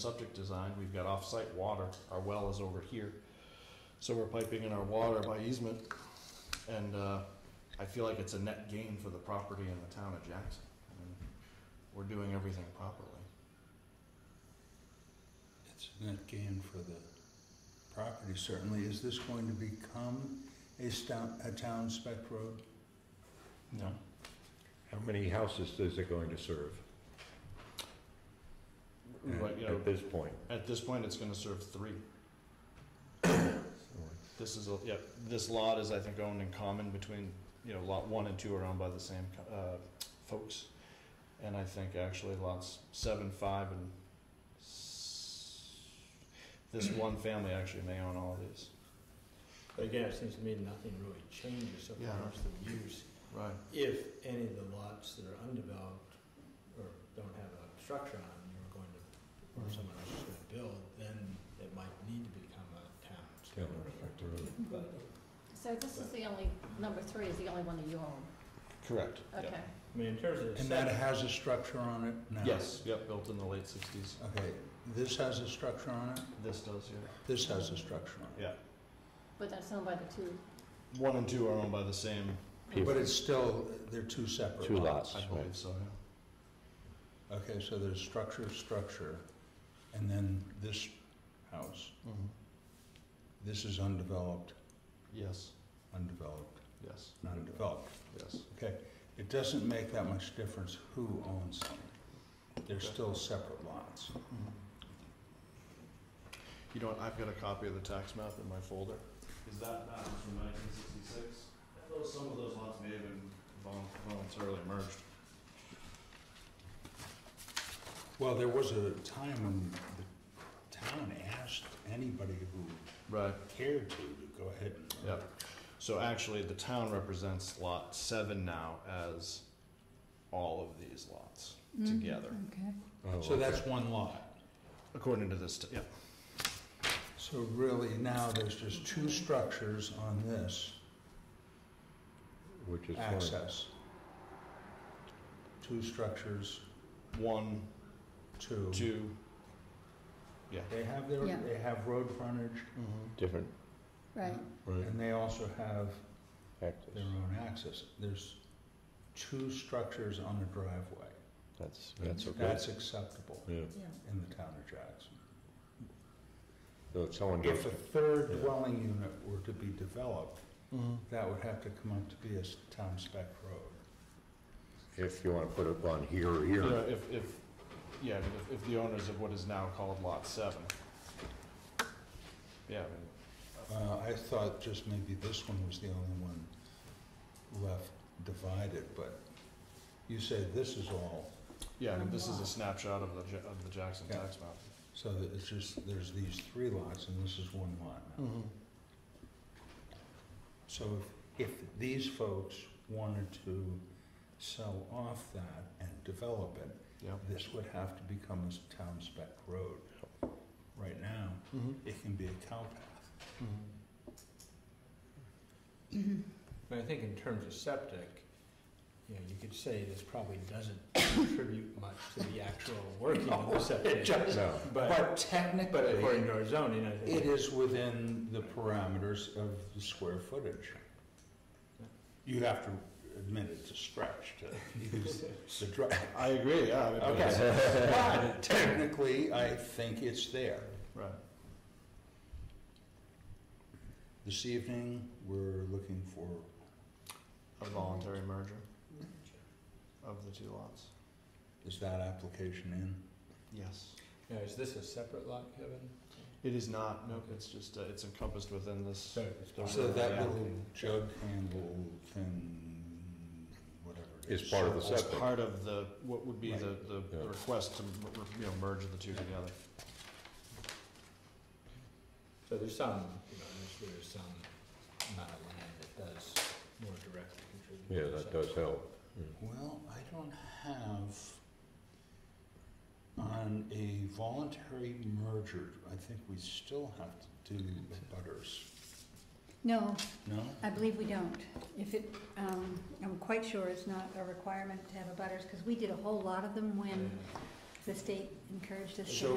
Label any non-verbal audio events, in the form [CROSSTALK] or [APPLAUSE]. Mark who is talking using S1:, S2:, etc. S1: subject design, we've got off-site water, our well is over here. So we're piping in our water by easement, and, uh, I feel like it's a net gain for the property and the town of Jackson. I mean, We're doing everything properly.
S2: It's a net gain for the property certainly. Is this going to become a town, a town spec road?
S1: No.
S3: How many houses is it going to serve
S1: But, you know,
S3: at this point?
S1: at this point, it's gonna serve three. This is, a yeah, this lot is, I think, owned in common between, you know, lot one and two are owned by the same, co- uh, folks. And I think actually lots seven, five, and s- this [CLEARS THROAT] one family actually may own all these.
S4: But again, it seems to me nothing really changes so
S1: Yeah.
S4: far as the use,
S1: Right.
S4: if any of the lots that are undeveloped or don't have a structure on, them, you're going to, or someone else is gonna build, then it might need to become a town.
S3: Town effect road.
S4: But,
S5: So this is the only, number three is the only one that you own,
S1: Correct. Yep.
S5: okay.
S4: I mean, in terms of the
S2: And that
S4: setback,
S2: has a structure on it now?
S1: Yes, yep, built in the late sixties.
S2: Okay, this has a structure on it,
S1: This does, yeah.
S2: this has a structure on
S5: But that's owned by the two,
S1: One and two are owned by the same,
S2: it. But it's still, they're two separate
S3: Two
S2: lots.
S1: I believe so, yeah.
S2: Okay, so there's structure, structure, and then this house.
S1: Mhm.
S2: This is undeveloped,
S1: Yes,
S2: undeveloped,
S1: yes,
S2: and undeveloped.
S1: yes.
S2: Okay, it doesn't make that much difference who owns them. They're still separate lots.
S1: You know what, I've got a copy of the tax map in my folder. Is that map is from nineteen sixty-six? Those, some of those lots may have been vol- voluntarily merged.
S2: Well, there was a time when the town asked anybody who
S1: Right.
S2: cared to to go ahead and.
S1: Yep. So actually, the town represents lot seven now as all of these lots together,
S3: Oh,
S2: So that's one lot.
S1: according to this, t- yep.
S2: So really now there's just two structures on this
S3: Which is fine.
S2: access. Two structures,
S1: One,
S2: two.
S1: two,
S2: They have their,
S5: Yeah.
S2: they have road frontage
S3: Different,
S5: right,
S3: right,
S2: and they also have
S3: access.
S2: their own access. There's two structures on a driveway.
S3: That's, that's okay.
S2: That's acceptable
S3: Yeah,
S5: yeah.
S2: in the town of Jackson.
S3: so if someone goes,
S2: If a third
S3: Yeah.
S2: dwelling unit were to be developed, that would have to come up to be a s- town spec road.
S3: if you wanna put it on here or here,
S1: Yeah, if, if, yeah, I mean, if, if the owners of what is now called lot seven. Yeah, I mean,
S2: Uh, I thought just maybe this one was the only one left divided, but you say this is all,
S1: yeah, I mean, this is a snapshot of the, Ja- of the Jackson
S2: Yeah.
S1: tax map.
S2: so that it's just, there's these three lots and this is one lot now. So if, if these folks wanted to sell off that and develop it,
S1: Yep.
S2: this would have to become a s- town spec road. Right now, it can be a cow path.
S4: but I think in terms of septic, you know, you could say this probably doesn't contribute much to the actual working of the septic.
S3: no,
S2: But
S4: But, but according
S2: technically,
S4: to our zoning, I
S2: it
S4: think,
S2: is within the parameters of the square footage. You have to admit it's a stretch to
S4: [LAUGHS]
S2: use the drive.
S1: I agree, yeah. I mean, but it's-
S2: Okay, but technically, I think it's there.
S1: Right.
S2: This evening, we're looking for,
S1: A voluntary merger of the two lots?
S2: is that application in?
S1: Yes.
S4: now, is this a separate lot, Kevin?
S1: It is not, no, it's just, uh, it's encompassed within this.
S4: So it's not-
S2: So that
S1: Yeah.
S2: little jug handle thing, whatever. it
S3: Is part of the
S1: It's
S3: septic.
S1: part of the, what would be the, the
S3: Yeah.
S1: request to, mer- you know, merge the two together.
S4: So there's some, you know, there's, there's some amount of land that does more directly
S3: yeah,
S4: contribute. to
S3: that
S4: the
S3: does help.
S2: Well, I don't have, on a voluntary merger, I think we still have to do the butters,
S6: No,
S2: no?
S6: I believe we don't. If it, um, I'm quite sure it's not a requirement to have a butters, because we did a whole lot of them
S4: septic.
S6: when the state encouraged us to
S2: So
S6: have